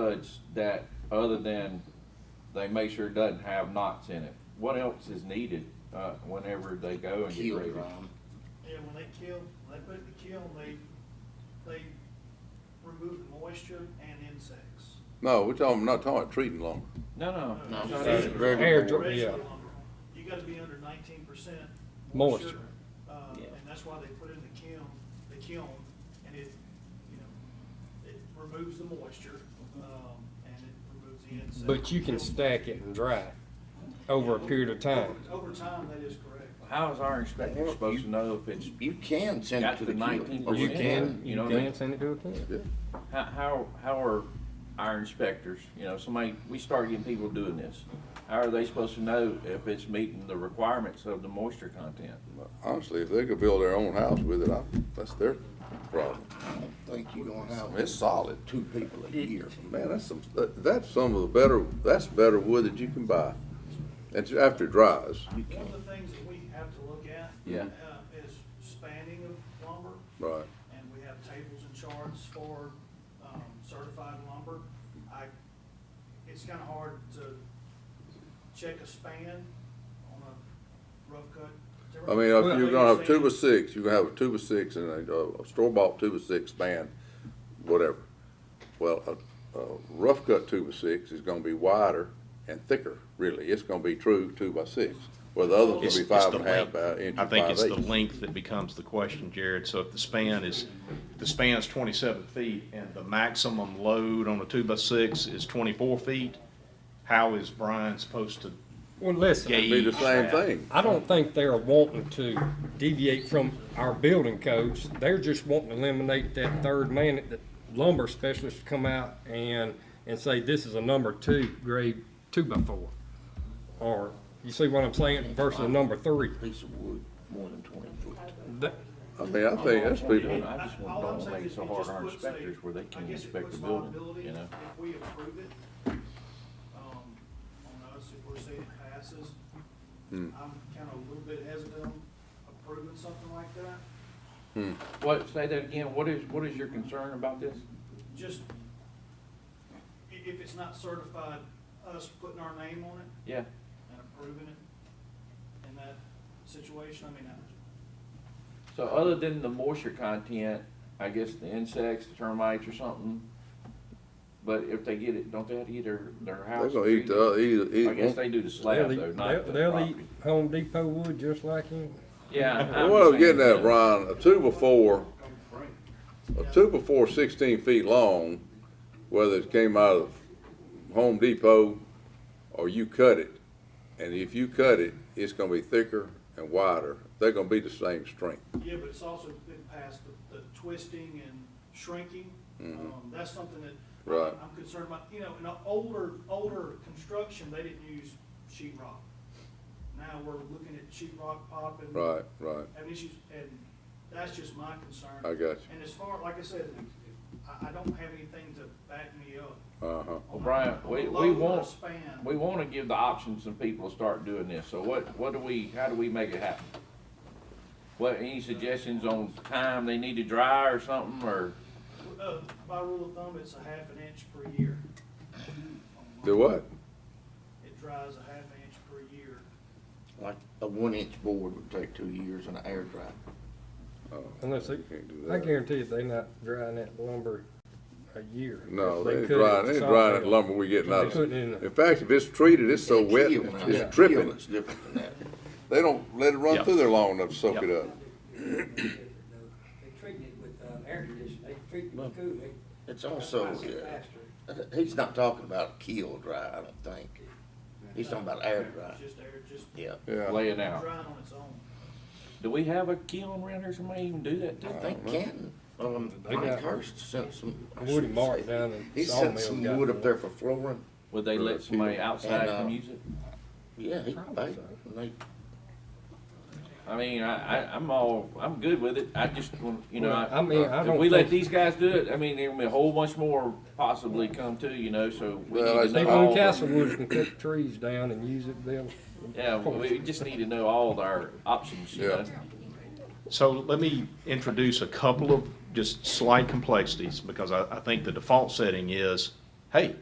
judge that, other than they make sure it doesn't have knots in it? What else is needed, uh, whenever they go and get Keel ready? drum. Yeah, when they kill, when they put it in the kiln, they, they remove moisture and insects. No, we're talking, not talking about treating lumber. No, no. No, it's Oh, no, not it's even- very- Air dr- Basically, yeah. You gotta be under nineteen percent Moisture. moisture. Uh, Yeah. and that's why they put it in the kiln, the kiln, and it, you know, it removes the moisture, um, and it removes the insects. But you can stack it and dry it over a period of time. Over time, that is correct. How is our inspector supposed to know if it's, You can send Got it to the the 19%. keel. Oh, You can- You know what I mean? can send it to a kid. how, how, how are our inspectors, you know, somebody, we start getting people doing this. How are they supposed to know if it's meeting the requirements of the moisture content? Honestly, if they could build their own house with it, I, that's their problem. I think you're gonna I mean, have It's solid. two people a year. Man, that's some, that- that's some of the better, that's better wood that you can buy. It's after it dries, One of the things that we have to look at. Yeah. uh, Is spanning of lumber. right? and we have tables and charts for, um, certified lumber. I, it's kinda hard to check a span on a rough cut. timber. I mean, if you're gonna have two by Well, six, you're gonna have a two by six and a, a store-bought two by six span, whatever. Well, a, a rough cut two by six is gonna be wider and thicker, really. It's gonna be true two by six, where the others It's- will be it's five the and a half length. by inch I and think five it's the eighths. length that becomes the question, Jared. So if the span is, the span's twenty-seven feet and the maximum load on a two-by-six is twenty-four feet, how is Brian supposed to Well, listen, gauge? Be the same that? thing. I don't think they're wanting to deviate from our building codes. They're just wanting to eliminate that third man, that lumber specialist to come out and, and say, this is a number two, grade two by four. Or, you see what I'm saying, versus a number three. Piece of wood, more than twenty foot. That- I mean, I think that's people, I just all I'm want to saying make it is so it hard just on our puts a- inspectors where they I can guess it inspect puts the building, liability you know? If we approve it, um, on us, if we're saying it passes, Hmm. I'm kinda a little bit hesitant on approving something like that. hmm, What, say that again, what is, what is your concern about this? just, i- if it's not certified, us putting our name on it Yeah, and approving it in that situation, I mean, I- so other than the moisture content, I guess the insects, the termites or something, but if they get it, don't they have to eat their, their they're house? gonna eat the, other- eat, eat. I guess they do the slab They'll though, eat, not they'll- the they'll eat property. Home Depot wood just like you. Yeah. I- Well, What I was I'm getting saying, at, Brian, a two by four, a two by four sixteen feet long, whether it came out of Home Depot or you cut it, and if you cut it, it's gonna be thicker and wider. They're gonna be the same strength. yeah, but it's also been past the, the twisting and shrinking. Um, that's something that Mm-hmm. Right. I'm concerned about, you know, in an older, older construction, they didn't use sheet rock. Now we're looking at sheet rock popping. Right, right. having issues, and that's just my concern. I got you. And as far, like I said, I, I don't have anything to back me up. Uh-huh. Well, Brian, we, we Low want, span. we want to give the options to people to start doing this, so what, what do we, how do we make it happen? What, any suggestions on time they need to dry or something, or? Uh, by rule of thumb, it's a half an inch per year. Do what? It dries a half an inch per year. Like a one inch board would take two years and an air dry. Unless they, Can't do I that. guarantee you they not drying that lumber a year. No, If they ain't cut it, drying, they ain't it's all drying that dead. lumber we getting out They of put it. it in a- In fact, if it's treated, it's so And wet, keel, now, that it's dripping. keel is different than that. They don't let it run Yeah. through there long enough to soak it Yeah. up. They treating it with um, air conditioning, they treating it with cooling. It's also, It's yeah, faster. he's not talking about keel dry, I don't think. He's talking about air dry, It's just air, just yeah. Yeah. Laying out. drying on its own. Do we have a kiln around here, somebody even do that I too? think Canton, um, They Mike got Hurst sent some. I Woody shouldn't Mark say. down in He sent Sawmill some got wood up one. there for flooring, Would they For let the somebody kiln. outside And, uh, come use it? yeah, he, Probably they, so. they I mean, I, I, I'm all, I'm good with it, I just, want you know, Well, I mean, I if don't we let think- these guys do it, I mean, there'll be a whole bunch more possibly come to, you know, so we Well, need to I- know People all in the- Castlewood can cut trees down and use it then. Yeah, we just need to know all our options, you know? Yeah. So let me introduce a couple of just slight complexities, because I, I think the default setting is hey,